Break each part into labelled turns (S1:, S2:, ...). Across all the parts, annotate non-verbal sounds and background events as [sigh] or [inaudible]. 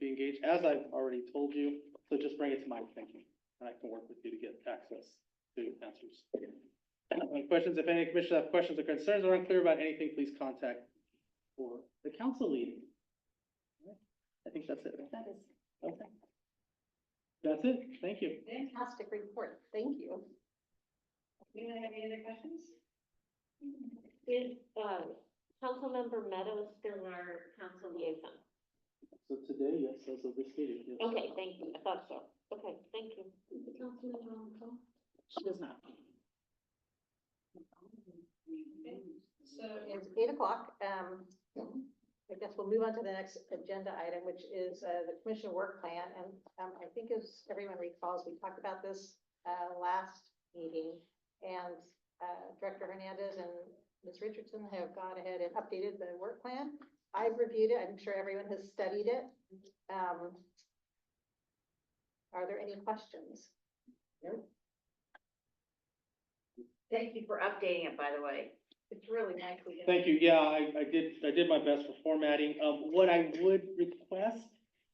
S1: page, as I've already told you, so just bring it to my thinking, and I can work with you to get access to answers. Any Questions, if any commissioners have questions or concerns or unclear about anything, please contact or the council lead. I think that's it.
S2: That is
S1: Okay. That's it, thank you.
S2: fantastic report. Thank you.
S3: Anyone have any other questions?
S4: Is, um, Councilmember Meadows still our council liaison?
S1: So today, yes, as of this meeting. yes.
S4: Okay, thank you, I thought so. Okay, thank you.
S1: She does not.
S3: So
S2: It's eight o'clock. Um, I guess we'll move on to the next agenda item, which is, uh, the commission work plan. And, um, I think as everyone recalls, we talked about this, uh, last meeting. And, uh, Director Hernandez and Ms. Richardson have gone ahead and updated the work plan. I've reviewed it. I'm sure everyone has studied it. Um, are there any questions?
S3: thank you for updating it, by the way. It's really nicely done.
S1: Thank you, yeah, I, I did, I did my best for formatting. Um, what I would request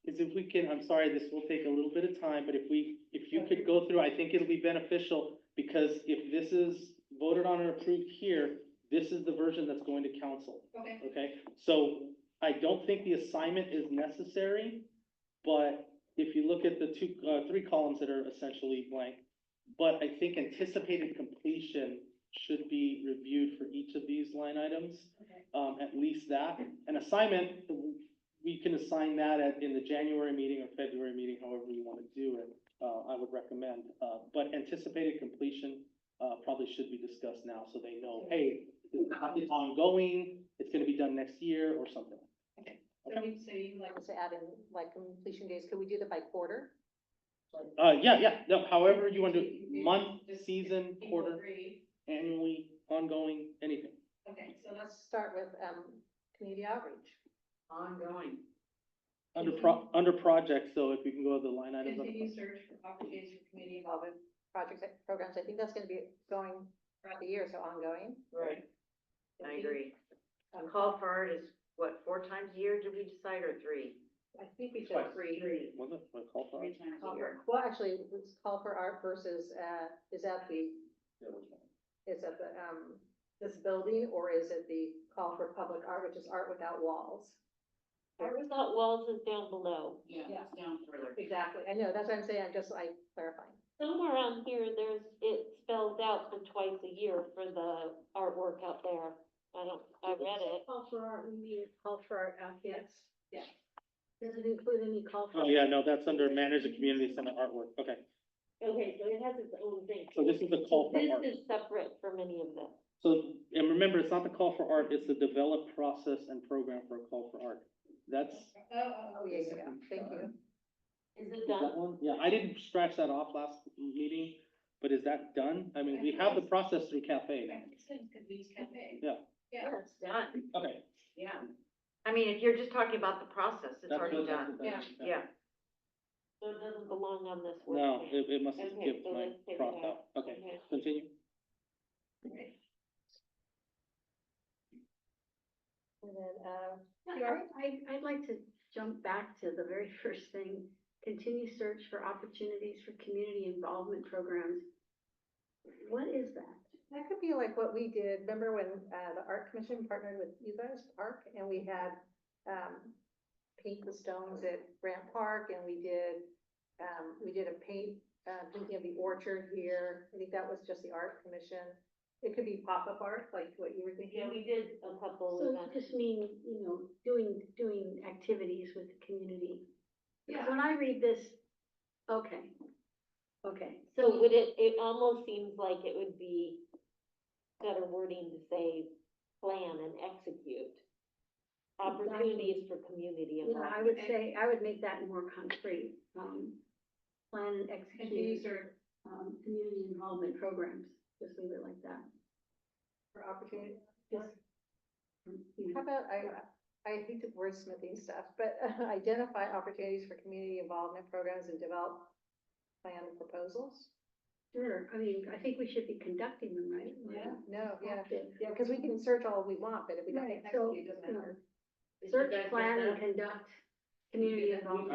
S1: is if we can, I'm sorry, this will take a little bit of time, but if we, if you could go through, I think it'll be beneficial, because if this is voted on and approved here, this is the version that's going to council.
S3: Okay,
S1: Okay, so I don't think the assignment is necessary, but if you look at the two, uh, three columns that are essentially blank, but I think anticipated completion should be reviewed for each of these line items,
S3: okay.
S1: um, at least that. An assignment, we can assign that at, in the January meeting or February meeting, however you want to do it, uh, I would recommend. Uh, but anticipated completion, uh, probably should be discussed now, so they know, hey, it's ongoing, it's gonna be done next year or something.
S3: So we, so you like,
S2: I would say add in like completion days. Could we do that by quarter?
S1: Uh, yeah, yeah, no, however you want to,
S3: You-
S1: month,
S3: just-
S1: season,
S3: people
S1: quarter,
S3: agree?
S1: annually, ongoing, anything.
S3: Okay, so
S2: Let's
S3: that's
S2: start with, um, community outreach.
S3: ongoing.
S1: Under pro, under projects, though, if you can go to the line items. on-
S3: Continue search for opportunities for community involvement.
S2: projects, programs, I think that's gonna be going throughout the year, so ongoing.
S5: Right, I agree.
S2: Um,
S5: Call for art is, what, four times a year, did we decide, or three?
S2: I think we should.
S1: Twice.
S5: Three.
S1: Was it, what, call for?
S5: Three times
S2: call
S5: a year.
S2: for- Well, actually, let's call for art versus, uh, is that the,
S1: Yeah, which one?
S2: is that the, um, this building, or is it the call for public art, which is art without walls?
S4: Art without walls is down below.
S5: Yeah,
S2: Yeah.
S5: it's down further.
S2: Exactly, I know, that's what I'm saying, I'm just like clarifying.
S4: Somewhere on here, there's, it spells out the twice a year for the artwork out there. I don't, I read it.
S6: Call for art, we need a call for art out here.
S3: Yeah.
S6: Does it include any call for?
S1: Oh, yeah, no, that's under manage the community center artwork, okay.
S4: Okay, so it has its own thing.
S1: So this is the call for art.
S4: This is separate from any of this.
S1: So, and remember, it's not the call for art, it's the develop process and program for a call for art. That's, is
S3: Oh, oh,
S2: Oh, yeah, yeah, yeah. thank you.
S4: Is it done?
S1: that one? Yeah, I didn't scratch that off last meeting, but is that done? I mean, we have the process through cafe. now.
S3: Could be cafe.
S1: Yeah.
S3: Yeah,
S6: Yes.
S5: Done,
S1: Okay.
S5: yeah. I mean, if you're just talking about the process, it's
S1: that's
S5: already
S1: what- that's
S5: done,
S1: what that is.
S5: yeah.
S4: So it doesn't belong on this work
S1: No,
S4: plan?
S1: it, it must
S4: Okay,
S1: give
S4: so
S1: my
S4: let's take it
S1: cross out.
S4: out.
S1: Okay, continue.
S3: okay.
S2: And then, uh,
S6: Yeah, I, I'd like to jump back to the very [laughs] first thing, continue search for opportunities for community involvement programs. What is that?
S2: That could be like what we did, remember when uh the art commission partnered with you guys, Park, and we had um paint the stones at Grant Park and we did um, we did a paint, uh, thinking of the orchard here, I think that was just the art commission. It could be pop-up art, like what you were
S4: Yeah, we
S2: thinking.
S4: did a couple
S6: So
S4: events.
S6: just mean, you know, doing, doing activities with the community.
S3: Yeah.
S6: When I read this, okay, okay.
S4: So would it, it almost seems like it would be better wording to say plan and execute. Opportunities for community
S6: Yeah, I
S4: involvement.
S6: would say, I would make that more concrete, um, plan and
S3: Continue
S6: execute,
S3: search
S6: um, community involvement programs, just leave it like that.
S2: For opportunity.
S6: You
S2: How
S6: know,
S2: about, I, I hate the wordsmithing stuff, but [laughs] identify opportunities for community involvement programs and develop plan proposals?
S6: Sure, I mean, I think we should be conducting them, right? We're
S3: Yeah.
S2: No, yeah,
S6: active.
S2: yeah, because we can search all we want, but if we don't
S6: Right, so,
S2: execute, it doesn't
S6: you
S2: matter.
S6: know, Search, plan, and conduct community
S3: that.
S6: involvement.